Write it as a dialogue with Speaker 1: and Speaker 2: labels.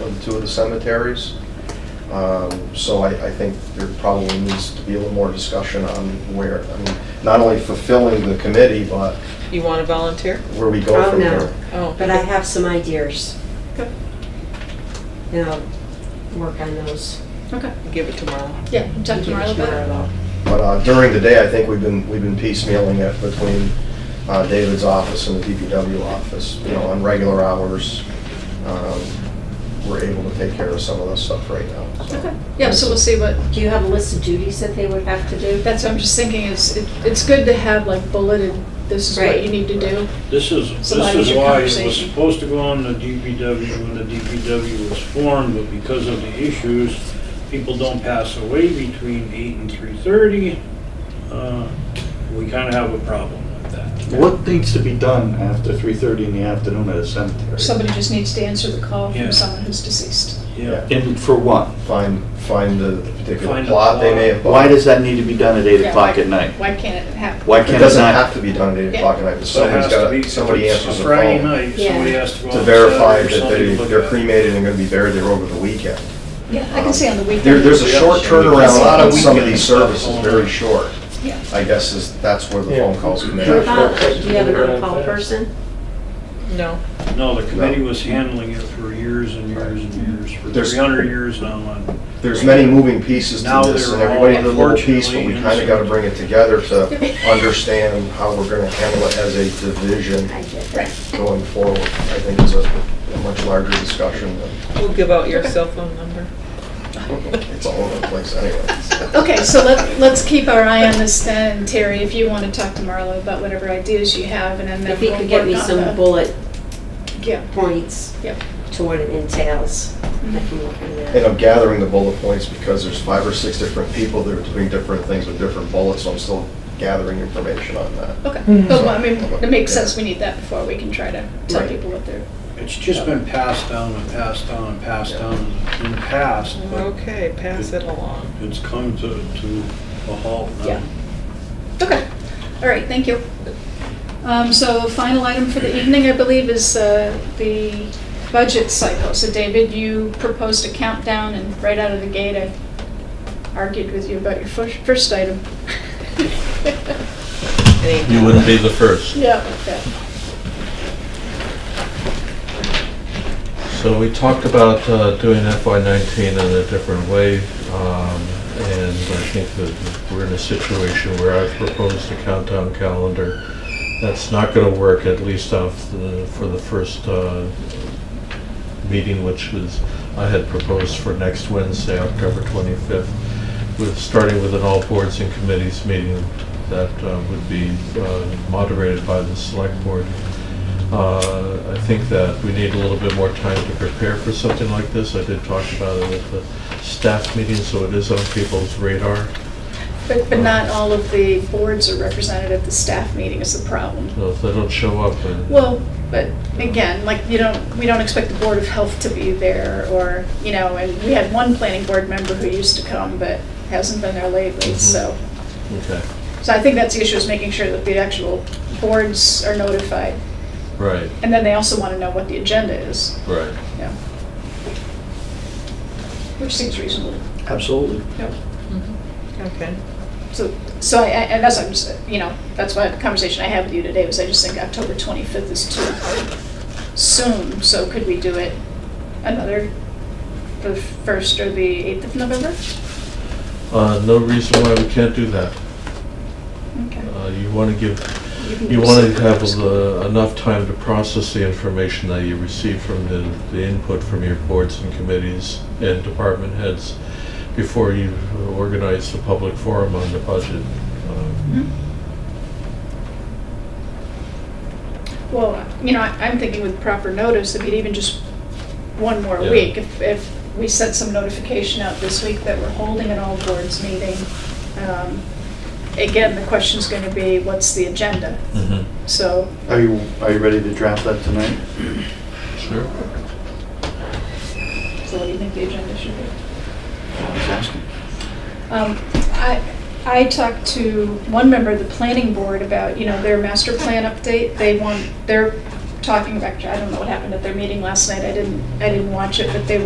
Speaker 1: in two of the cemeteries. Um, So I, I think there probably needs to be a little more discussion on where, I mean, not only fulfilling the committee, but
Speaker 2: You want to volunteer?
Speaker 1: where we go
Speaker 3: Oh,
Speaker 1: from
Speaker 3: no.
Speaker 1: there.
Speaker 2: Oh,
Speaker 3: But I have some ideas,
Speaker 4: Okay,
Speaker 3: and I'll work on those.
Speaker 4: okay.
Speaker 2: give it tomorrow.
Speaker 4: Yeah, talk to Marla about it.
Speaker 1: But uh, during the day, I think we've been, we've been piecemealing it between uh, David's office and the DPW office, you know, on regular hours. um, We're able to take care of some of this stuff right now, so.
Speaker 4: Okay, yeah, so we'll see what,
Speaker 3: Do you have a list of duties that they would have to do?
Speaker 4: that's what I'm just thinking, is, it- it's good to have like bulleted, this is what
Speaker 3: Right.
Speaker 4: you need to do.
Speaker 5: This is,
Speaker 4: So why
Speaker 5: this
Speaker 4: was
Speaker 5: is
Speaker 4: your
Speaker 5: why it was
Speaker 4: conversation?
Speaker 5: supposed to go on the DPW when the DPW was formed, but because of the issues, people don't pass away between eight and three thirty. Uh, We kind of have a problem with that.
Speaker 6: What needs to be done after three thirty in the afternoon at a cemetery?
Speaker 4: Somebody just needs to answer the call
Speaker 5: Yeah.
Speaker 4: from someone who's deceased.
Speaker 5: Yeah,
Speaker 6: And for what?
Speaker 1: Find, find the particular
Speaker 5: Find a
Speaker 1: plot they may have.
Speaker 6: Why does that need to be done at eight
Speaker 4: Yeah,
Speaker 6: o'clock
Speaker 4: why-
Speaker 6: at night?
Speaker 4: Why can't it happen?
Speaker 6: Why
Speaker 1: It
Speaker 6: can't it
Speaker 1: doesn't have
Speaker 6: not?
Speaker 1: to be done at eight
Speaker 4: Yeah.
Speaker 1: o'clock at night, but
Speaker 5: so it
Speaker 1: somebody's
Speaker 5: has to be,
Speaker 1: got,
Speaker 5: somebody
Speaker 1: somebody answers the
Speaker 5: Friday
Speaker 1: phone
Speaker 5: night,
Speaker 3: Yeah.
Speaker 5: somebody has to go.
Speaker 1: to
Speaker 5: out
Speaker 1: verify
Speaker 5: Saturday or
Speaker 1: that they,
Speaker 5: something, look
Speaker 1: they're
Speaker 5: uh, at-
Speaker 1: cremated and gonna be buried there over the weekend. Um,
Speaker 4: Yeah, I can see on the weekend.
Speaker 1: There, there's a short turnaround
Speaker 4: Yeah.
Speaker 1: on some of these services, very short.
Speaker 4: Yeah.
Speaker 1: I guess is, that's where the
Speaker 7: Yeah.
Speaker 1: phone calls come in.
Speaker 3: For Bob, Do you have an on-call person?
Speaker 2: No.
Speaker 5: No, the committee was handling it for years and years and years, for
Speaker 1: There's-
Speaker 5: three hundred years now. and-
Speaker 1: There's many moving pieces to
Speaker 5: Now
Speaker 1: this, and
Speaker 5: they're all
Speaker 1: everybody did a little piece, but we
Speaker 5: unfortunately
Speaker 1: kinda gotta bring it together to understand how we're gonna handle it as a division
Speaker 3: I get that.
Speaker 4: Right,
Speaker 1: going forward. I think it's a a much larger discussion,
Speaker 2: We'll give out your cell phone number.
Speaker 1: but it's all over the place anyway.
Speaker 4: okay, so let, let's keep our eye on this then, and Terry, if you want to talk to Marla about whatever ideas you have, and then
Speaker 3: If
Speaker 4: we
Speaker 3: he could get me some bullet
Speaker 4: Yeah,
Speaker 3: points
Speaker 4: Yep.
Speaker 3: to what it entails, I can work on
Speaker 1: And
Speaker 3: that.
Speaker 1: I'm gathering the bullet points because there's five or six different people that are doing different things with different bullets, so I'm still gathering information on that.
Speaker 4: okay,
Speaker 7: Mhm.
Speaker 4: but I mean, it makes
Speaker 1: Mm-hmm. Yeah.
Speaker 4: sense, we need that before we can try to tell
Speaker 1: Right.
Speaker 4: people what they're,
Speaker 5: It's just been passed down and passed down and passed down in the past, but
Speaker 2: Okay, pass it along.
Speaker 5: it's come to, to a halt
Speaker 4: Yeah.
Speaker 5: now.
Speaker 4: okay, all right, thank you. Um, so final item for the evening, I believe, is, uh, the budget cycle. So David, you proposed a countdown, and right out of the gate, I argued with you about your first, first item.
Speaker 2: Any-
Speaker 8: You wouldn't be the first.
Speaker 4: Yeah, okay.
Speaker 8: So we talked about uh, doing FY19 in a different way, um, and I think that we're in a situation where I've proposed a countdown calendar. That's not going to work, at least off the, for the first uh, meeting, which was, I had proposed for next Wednesday, October 25th, with, starting with an all boards and committees meeting that uh, would be uh, moderated by the select board. Uh, I think that we need a little bit more time to prepare for something like this. I did talk about it at the staff meeting, so it is on people's radar.
Speaker 4: But, but not all of the boards are represented at the staff meeting is the problem.
Speaker 8: So if they don't show up, then
Speaker 4: Well, but again, like, you don't, we don't expect the Board of Health to be there, or, you know, and we had one planning board member who used to come, but hasn't been there lately,
Speaker 8: Mhm.
Speaker 4: so.
Speaker 8: okay,
Speaker 4: So I think that's the issue, is making sure that the actual boards are notified.
Speaker 8: right,
Speaker 4: And then they also want to know what the agenda is,
Speaker 8: right.
Speaker 4: yeah. Which seems reasonable.
Speaker 6: Absolutely.
Speaker 2: Okay.
Speaker 4: So, so I, I- and that's, what I'm just, you know, that's why the conversation I had with you today was I just think October 25th is too soon, so could we do it another, the 1st or the 8th of November?
Speaker 8: Uh, No reason why we can't do that.
Speaker 4: Okay.
Speaker 8: Uh, You want to give
Speaker 4: can
Speaker 8: You
Speaker 4: do
Speaker 8: want to
Speaker 4: secret
Speaker 8: have uh,
Speaker 4: first.
Speaker 8: the- enough time to process the information that you receive from the, the input from your boards and committees and department heads before you organize the public forum on the budget. Um,
Speaker 4: Mhm. Mm-hmm. Well, you know, I- I'm thinking with proper notice, if it even just one more
Speaker 8: Yeah.
Speaker 4: week, if, if we sent some notification out this week that we're holding an all boards meeting, um, again, the question's gonna be, what's the agenda?
Speaker 8: Mm-hmm.
Speaker 4: So,
Speaker 6: Are you, are you ready to draft that tonight?
Speaker 8: Sure.
Speaker 4: so what do you think the agenda should be?
Speaker 6: I was asking.
Speaker 4: Um, I, I talked to one member of the planning board about, you know, their master plan update. They want, they're talking about, I don't know what happened at their meeting last night. I didn't, I didn't watch it, but they